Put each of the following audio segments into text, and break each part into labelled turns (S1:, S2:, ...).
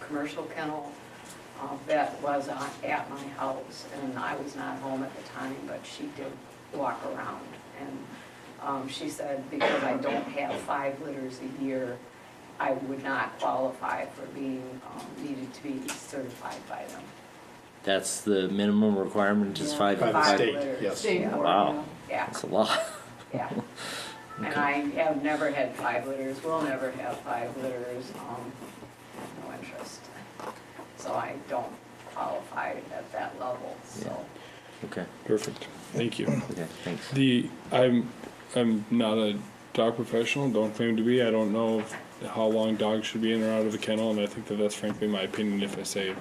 S1: commercial kennel uh, that was on- at my house, and I was not home at the time, but she did walk around. And um, she said, because I don't have five litters a year, I would not qualify for being, um, needed to be certified by them.
S2: That's the minimum requirement, is
S1: Yeah.
S2: five?
S1: By
S3: By
S1: the
S3: the
S1: Five
S3: state,
S1: letters.
S3: yes.
S4: State
S1: Yeah.
S4: board,
S2: Wow.
S1: Yeah,
S2: That's a lot.
S1: yeah. And I have never had five litters, will never have five litters, um, no interest. So I don't qualify at that level, so.
S2: Okay,
S5: Perfect. Thank you.
S2: okay, thanks.
S5: The I'm I'm not a dog professional. Don't claim to be. I don't know how long dogs should be in or out of the kennel, and I think that that's frankly my opinion if I say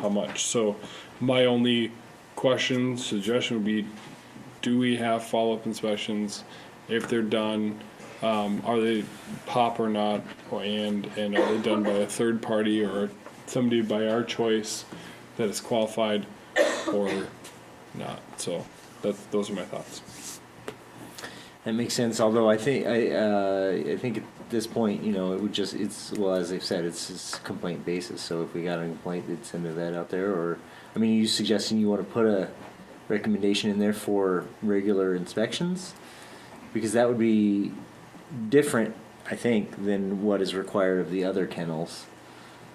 S5: how much. So my only question suggestion would be: Do we have follow up inspections? If they're done, um, are they pop or not? Or, and and are they done by a third party or somebody by our choice that is qualified or not? So that's those are my thoughts.
S2: That makes sense. Although I think I, uh, I think at this point, you know, it would just it's well as they've said, it's, it's complaint basis. So if we got a complaint, they'd send that out there. Or I mean, are you suggesting you want to put a recommendation in there for regular inspections? Because that would be different, I think, than what is required of the other kennels.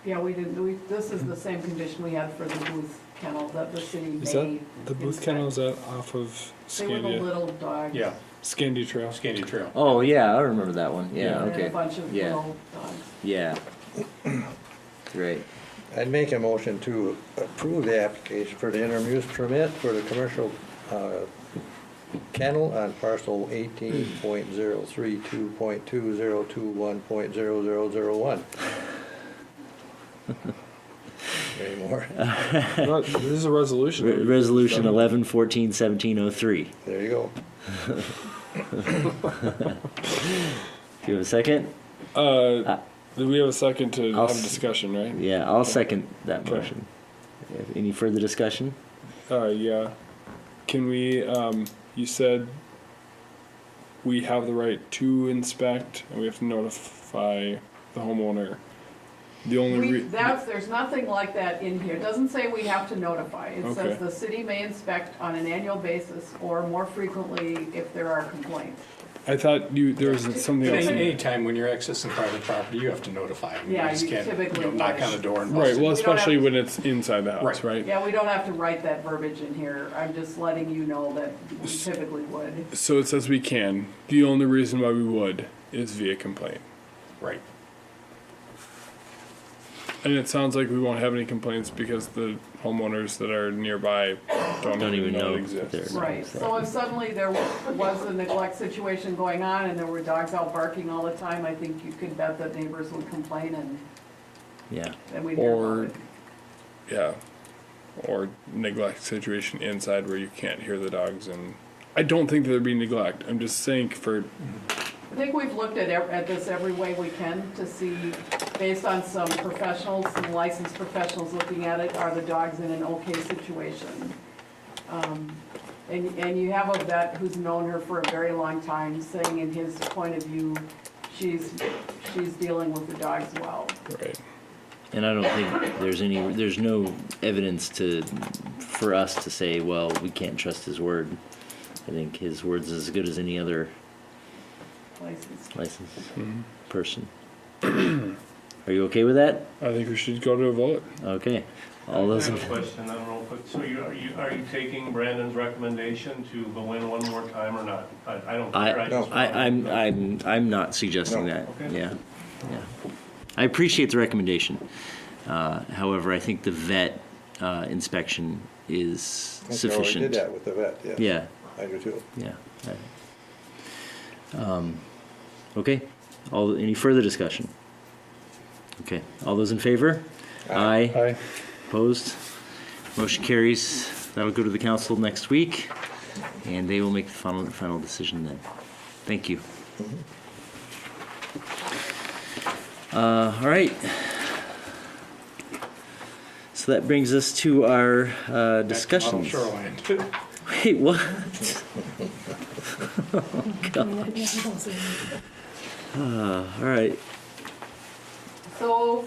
S4: yeah, we did, we, this is the same condition we had for the Booth kennel that the city made.
S5: Is that the Booth
S4: inspect.
S5: Kennel? Is that off of
S4: They were the
S5: Scandia?
S4: little dogs.
S3: Yeah,
S5: Scandia Trail.
S3: Scandy Trail.
S2: Oh yeah, I remember that one. Yeah,
S4: They had
S2: okay.
S4: a bunch of
S2: Yeah.
S4: little dogs.
S2: Yeah. Great.
S6: I'd make a motion to approve the application for the interim use permit for the commercial uh, kennel on parcel eighteen point zero three two point two zero two one point zero zero zero one. Any more?
S5: No, this is a resolution.
S2: Re- resolution 11 14 1703.
S6: There you go.
S2: Do you have a second?
S5: Uh, do we have a second to
S2: I'll
S5: have
S2: s-
S5: a discussion, right?
S2: Yeah, I'll second that
S5: Okay.
S2: motion. Any further discussion?
S5: Uh, yeah. Can we? Um, you said we have the right to inspect, and we have to notify the homeowner. The only
S4: We,
S5: re-
S4: that's, there's nothing like that in here. It doesn't say we have to notify. It says
S5: Okay.
S4: the city may inspect on an annual basis or more frequently if there are complaints.
S5: I thought you there was something else. in-
S3: Any time when you're accessing private property, you have to notify them.
S4: Yeah,
S3: just
S4: you
S3: can't,
S4: typically
S3: know, Knock on the
S4: would.
S3: door and
S5: Right. Well,
S3: bust in.
S4: We don't have-
S5: especially when it's inside the house,
S3: Right.
S5: right?
S4: Yeah, we don't have to write that verbiage in here. I'm just letting you know that we typically would.
S5: So it says we can. The only reason why we would is via complaint.
S3: Right.
S5: And it sounds like we won't have any complaints because the homeowners that are nearby don't,
S2: Don't even know
S5: it
S2: that
S5: exists.
S2: they're-
S4: Right, so if suddenly there was a neglect situation going on and there were dogs out barking all the time, I think you could bet that neighbors would complain and
S2: Yeah.
S4: then we'd hear about
S5: Or,
S4: it.
S5: yeah, or neglect situation inside where you can't hear the dogs and. I don't think that there'd be neglect. I'm just saying for
S4: I think we've looked at, ev- at this every way we can to see, based on some professionals, some licensed professionals looking at it, are the dogs in an okay situation? Um, And, and you have a vet who's known her for a very long time, saying in his point of view, she's, she's dealing with the dogs well.
S5: right.
S2: And I don't think there's any, there's no evidence to, for us to say, well, we can't trust his word. I think his word's as good as any other
S4: licensed.
S2: licensed person. Are you okay with that?
S5: I think we should go to a vote.
S2: Okay. All
S7: I
S2: those, in-
S7: have a question, then real quick. So you, are you, are you taking Brandon's recommendation to go in one more time or not? I, I don't
S2: I,
S7: care. I just
S2: I,
S7: want-
S2: I'm, I'm, I'm not suggesting
S6: No.
S2: that.
S7: Okay.
S2: Yeah, yeah. I appreciate the recommendation. Uh, however, I think the vet, uh, inspection is
S6: Okay, well, We did
S2: sufficient.
S6: that with the vet, yeah.
S2: Yeah,
S6: I do too.
S2: yeah. I- Um, okay, all, any further discussion? Okay, all those in favor? Aye.
S5: Aye.
S2: Opposed? Motion carries. That'll go to the council next week, and they will make the final, final decision then. Thank you. Uh, all right. So that brings us to our uh, discussions.
S3: Shoreline.
S2: Wait, what? oh, gosh. Uh, all right.
S4: So